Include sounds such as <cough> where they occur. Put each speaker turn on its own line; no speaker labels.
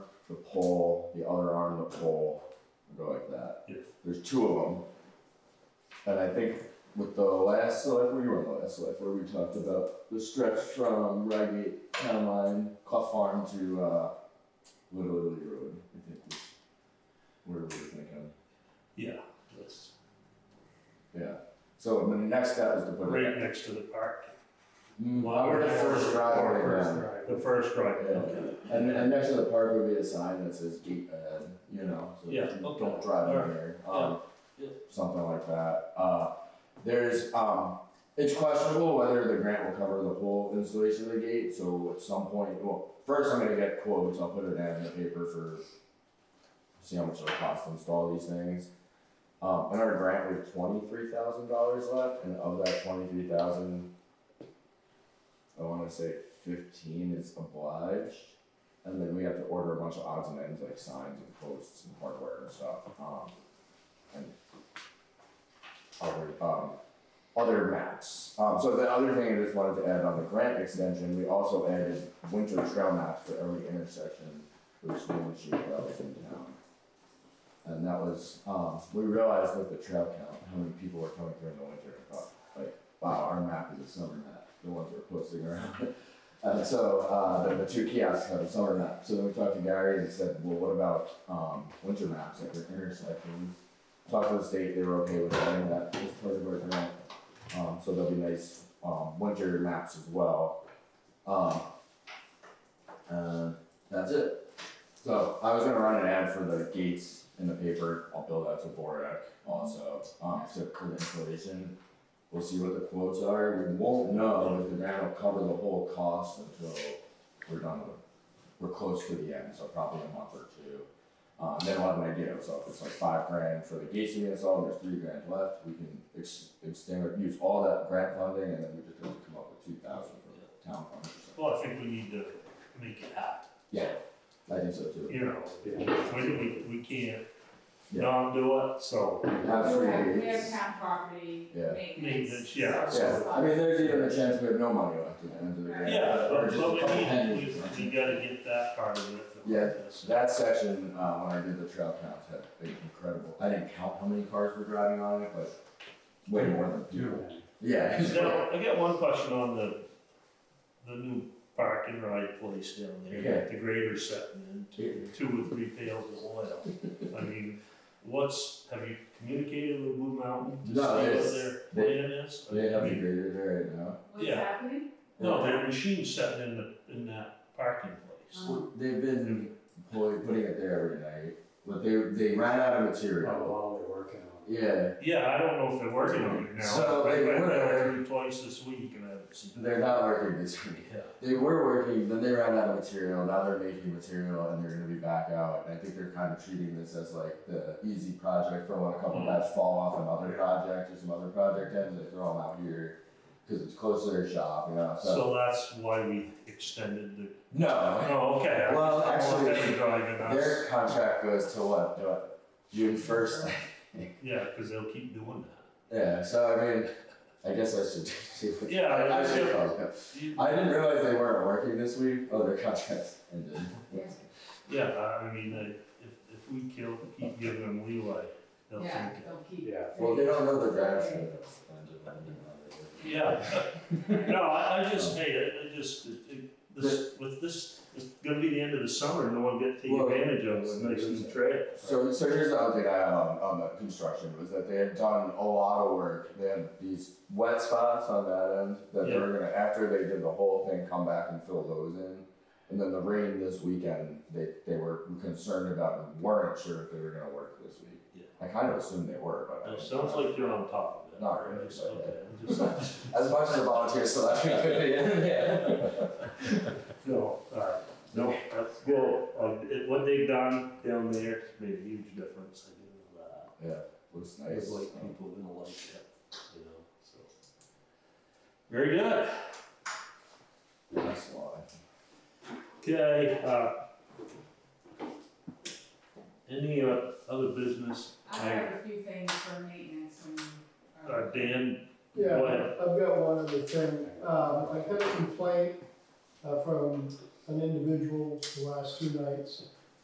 the pole, the other arm of the pole, and go like that.
Yes.
There's two of them. And I think with the last select, we were on the last select, where we talked about the stretch from Rygate Town Line, Clough Farm to, uh, Little Italy Road, I think was where we were thinking,
Yeah, that's
yeah. So the next step is to put
right
it.
next to the park.
Mm, Or the first driveway
Or
down.
first drive- The first driveway,
Yeah.
okay.
And, and next to the park would be a sign that says gate ahead, you know, so
Yeah,
you
okay.
don't drive in there. Um,
yeah.
Something like that. Uh, there's, um, it's questionable whether the grant will cover the whole installation of the gate, so at some point, well, first I'm gonna get quotes, I'll put it ad in the paper for, see how much it'll cost to install these things. Um, in our grant, we have twenty-three thousand dollars left, and of that twenty-three thousand, I wanna say fifteen is obliged. And then we have to order a bunch of odds and ends like signs and posts and hardware and stuff. Um, and other, um, other maps. Um, so the other thing I just wanted to add on the grant extension, we also added winter trail maps for every intersection with snow and sheep trails in town. And that was, um, we realized with the trail count, how many people were coming through in the winter and thought, like, wow, our map is a summer map, the ones we're posting around. And so, uh, the, the two kiosks have a summer map, so then we talked to Gary and said, well, what about, um, winter maps, like your intersections? Talked to the state, they were okay with adding that as part of our grant, um, so there'll be nice, um, winter maps as well. Um, and Uh, that's it. So, I was gonna run an ad for the gates in the paper, I'll build out to Borac also, um, so for the installation. We'll see what the quotes are. We won't know if the grant will cover the whole cost until we're done with, we're close to the end, so probably a month or two. Uh, and then we'll have an idea, so if it's like five grand for the gates we installed, there's three grand left, we can ex- extend, use all that grant funding, and then we just have to come up with two thousand for the town fund or something.
Well, I think we need to make it happen,
Yeah, I think so too.
you know, we, we, we can't
Yeah.
not do it, so.
Have
We have-
free
We have
gates.
town property
Yeah.
maintenance.
Maintenance, yeah.
so-
Yeah, I mean, there's even a chance we have no money left at the end of the grant.
Yeah,
or
but
just a
but we
couple
need,
pennies.
we, we gotta get that part of it.
Yeah. That section, uh, when I did the trail counts, had been incredible. I didn't count how many cars were driving on it, but way more than people. Yeah. <laughs>
Now, I got one question on the, the new park and ride place down there, that the grader's setting in, two, two or three pails of oil. I mean, what's, have you communicated with Blue Mountain to see
No,
what
it's-
their
they-
plan is?
They have
I
the
mean,
grader there right now.
What's
Yeah.
happening?
No, their machine's setting in the, in that parking place.
So They've been pulling, putting it there every night, but they, they ran out of
How
Oh.
material.
long they're working on it.
Yeah,
Yeah, I don't know if they're working on it now.
So
I-
they
I- I
were-
went through Twice this week and I haven't seen.
they're not working this week.
Yeah.
They were working, then they ran out of material, now they're making material and they're gonna be back out. And I think they're kind of treating this as like the easy project for when a couple
Mm.
guys fall off another project or some other project ends, they throw them out here. Cause it's close to their shop, you know, so,
So that's why we extended the,
no,
oh, okay. I
Well,
was- I was
actually,
gonna drive it out.
their contract goes to what, what, June first?
Yeah, because they'll keep doing that.
Yeah, so I mean, I guess I should see what.
Yeah, I
I
was
should
gonna-
call them. I didn't realize they weren't working this week, oh, their contract ended.
Yeah, I I mean, I- if, if we kill, keep giving them leeway, they'll
Yeah,
think.
they'll keep.
Yeah.
Well, they don't know the grants.
Yeah, no, I, I just, hey, I- I just, it- it- this, with this, it's gonna be the end of the summer, no one gets to take
Well,
advantage of it, nice and trade.
So, so here's the update I have on, on the construction, was that they had done a lot of work, they had these wet spots on that end, that they were gonna, after they did the whole thing, come back and fill those in. And then the rain this weekend, they, they were concerned about, and weren't sure if they were gonna work this week.
Yeah.
I kind of assumed they were, but. I
It
didn't
sounds
know.
like you're on top of it.
Not really,
Just-
but-
okay, I'm just-
As much as a volunteer, so that we could be,
<laughs>
yeah.
No, alright, no, that's good, um, it- what they've done down there made a huge difference, I do know that.
Looks
I
nice.
was like, people didn't like it, you know, so. Very good.
Nice lawn.
Okay, uh. Any uh, other business?
I have a few things for maintenance and. um,
Uh, Dan?
Yeah,
What?
I've got one other thing. Um, I got a complaint, uh, from an individual the last two nights